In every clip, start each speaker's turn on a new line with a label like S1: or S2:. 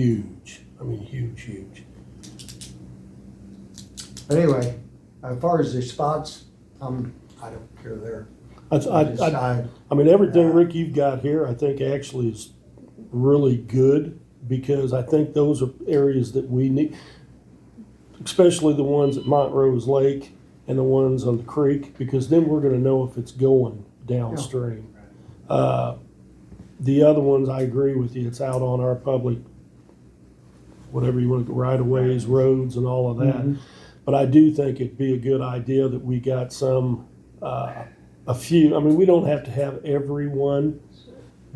S1: huge. I mean, huge, huge.
S2: But anyway, as far as the spots, um, I don't care there.
S1: I, I, I,
S2: Decide.
S1: I mean, everything, Rick, you've got here, I think actually is really good because I think those are areas that we need, especially the ones at Montrose Lake and the ones on the creek, because then we're gonna know if it's going downstream. Uh, The other ones, I agree with you, it's out on our public, whatever you want to, right of ways, roads and all of that. But I do think it'd be a good idea that we got some, uh, a few, I mean, we don't have to have everyone,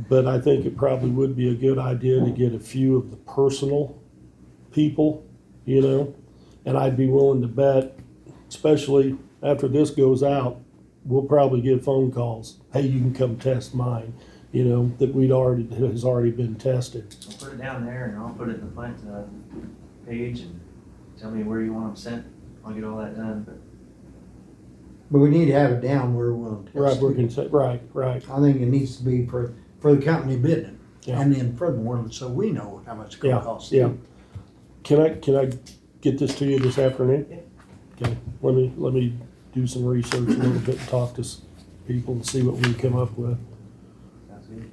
S1: but I think it probably would be a good idea to get a few of the personal people, you know? And I'd be willing to bet, especially after this goes out, we'll probably get phone calls, hey, you can come test mine, you know, that we'd already, has already been tested.
S3: I'll put it down there and I'll put it in the plant, uh, page and tell me where you want them sent. I'll get all that done, but
S2: But we need to have it down where we're going to
S1: Right,
S2: test
S1: we're
S2: it.
S1: gonna say, right, right,
S2: I think it needs to be for, for the company bidding.
S1: Yeah.
S2: And then furthermore, so we know how much it's gonna
S1: yeah,
S2: cost.
S1: yeah. Can I, can I get this to you this afternoon?
S3: Yeah.
S1: Okay, let me, let me do some research a little bit, and talk to s- people and see what we come up with.
S3: sounds good.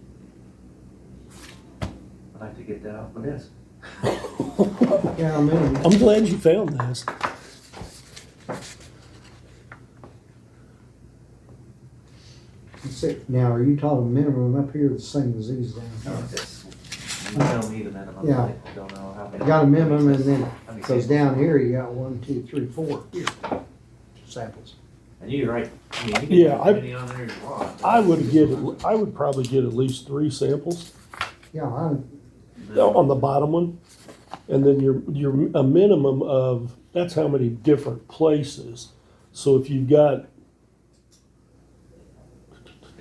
S3: I'd like to get that off my desk.
S2: Yeah, I mean,
S1: I'm glad you found this.
S2: si- now, are you talking minimum up here, or the same as these down here?
S3: Just- You tell me the minimum,
S2: Oh, Yeah.
S3: I don't know how many.
S2: You got a minimum and then,
S3: How many
S2: cause
S3: samples.
S2: down here, you got one, two, three, four here, samples.
S3: And you're right, I mean, you
S1: Yeah,
S3: can put
S1: I-
S3: as many on there as you want.
S1: I would get, at- I would probably get at least three samples
S2: Yeah, I,
S3: uh,
S1: on the bottom one. And then your, your, a minimum of, that's how many different places. So if you've got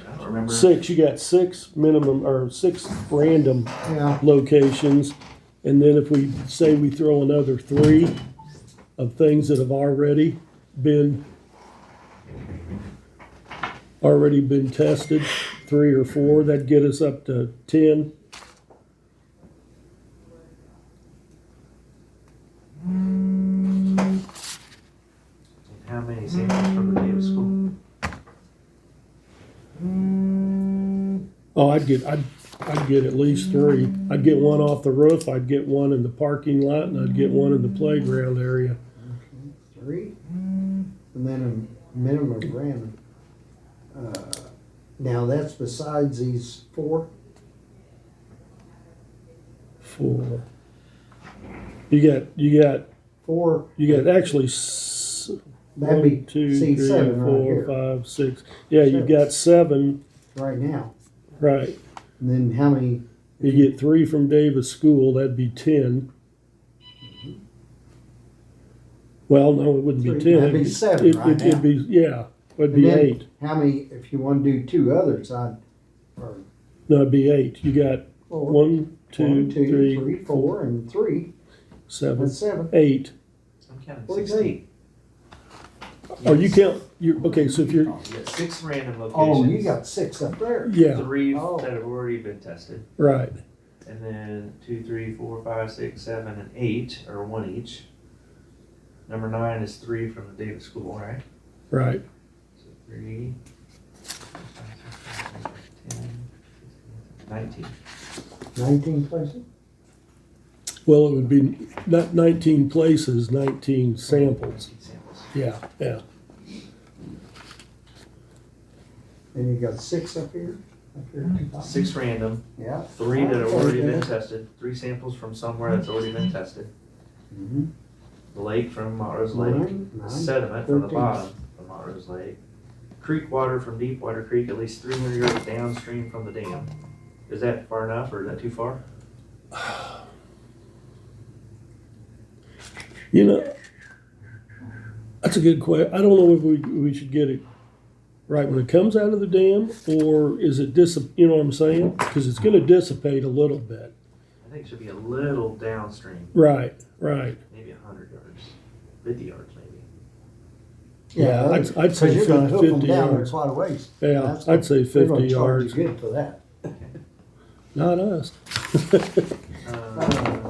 S3: I don't remember.
S1: six, you got six minimum, or six random
S2: yeah,
S1: locations. And then if we say we throw another three of things that have already been, already been tested, three or four, that'd get us up to ten.
S3: And How many samples from the day of school?
S1: Oh, I'd get, I'd, I'd get at least three. I'd get one off the roof, I'd get one in the parking lot, and I'd get one in the playground area.
S2: three, and then a minimum of random. Uh, Now, that's besides these four,
S1: Four. You got, you got,
S2: four,
S1: you got actually s-
S2: that'd
S1: One,
S2: be,
S1: two,
S2: see,
S1: three,
S2: seven right
S1: four,
S2: here,
S1: five, six. Yeah, you've got seven,
S2: right now.
S1: right.
S2: And then how many,
S1: You get three from Davis School, that'd be ten. Well, no, it wouldn't be
S2: Three.
S1: ten.
S2: That'd be
S1: It'd
S2: seven
S1: it-
S2: right
S1: it- It'd
S2: now.
S1: be, yeah, it'd be
S2: And then-
S1: eight.
S2: how many, if you wanna do two others, I'd, or
S1: No, it'd be eight. You got
S2: four,
S1: one, two,
S2: one, two,
S1: three,
S2: three, four, and three,
S1: seven,
S2: that's seven.
S1: eight.
S3: I'm counting
S2: What do you
S3: sixteen.
S1: Oh, you count, you're, okay, so if you're,
S3: You got six random locations.
S2: Oh, you got six up there.
S1: yeah,
S3: Three
S2: Oh.
S3: that have already been tested.
S1: right.
S3: And then two, three, four, five, six, seven, and eight, or one each. Number nine is three from the Davis School, right?
S1: Right.
S3: So three. ten, Nineteen.
S2: Nineteen places?
S1: Well, it would be not nineteen places, nineteen samples.
S3: Nineteen Samples.
S1: Yeah, yeah.
S2: And you got six up here, up here. at the top.
S3: Six random,
S2: Yeah.
S3: three that have already been
S2: Okay.
S3: tested, three samples from somewhere that's already been tested.
S2: Mhm.
S3: The lake from Montrose Lake,
S2: Nine,
S3: the
S2: nine,
S3: sediment from the
S2: thirteen.
S3: bottom from Montrose Lake. Creek water from Deepwater Creek, at least three hundred yards downstream from the dam. Is that far enough, or is that too far?
S1: You know, that's a good question. I don't know if we, we should get it right when it comes out of the dam, or is it dis, you know what I'm saying? Because it's gonna dissipate a little bit.
S3: I think it should be a little downstream,
S1: Right, right.
S3: maybe a hundred yards, fifty yards maybe.
S1: Yeah, I'd, I'd
S2: Cause
S1: say
S2: you're gonna hook them
S1: fifty
S2: down there
S1: yards.
S2: quite a ways.
S1: Yeah,
S2: That's-
S1: I'd say
S2: They're
S1: fifty
S2: gonna charge
S1: yards,
S2: you good for that.
S1: not us.
S3: Uh,